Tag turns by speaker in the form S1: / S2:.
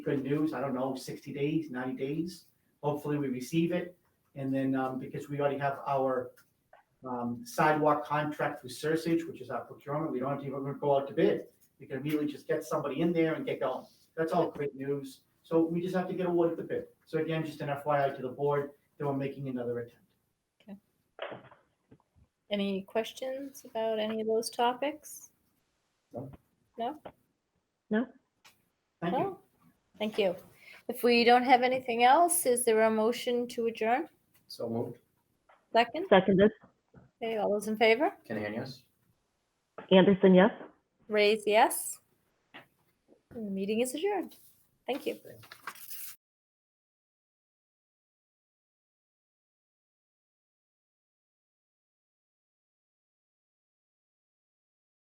S1: good news, I don't know, sixty days, ninety days. Hopefully we receive it. And then, um, because we already have our, um, sidewalk contract through Sursage, which is our procurement, we don't have to even go out to bid. We can immediately just get somebody in there and get going. That's all great news. So we just have to get awarded the bid. So again, just an FYI to the board, that we're making another attempt.
S2: Any questions about any of those topics?
S3: No.
S2: No?
S1: Thank you.
S2: No? Thank you. If we don't have anything else, is there a motion to adjourn?
S3: So moved.
S2: Second?
S4: Seconded.
S2: Okay, all those in favor?
S3: Kinahan, yes?
S4: Anderson, yes?
S2: Raise yes. And The meeting is adjourned. Thank you.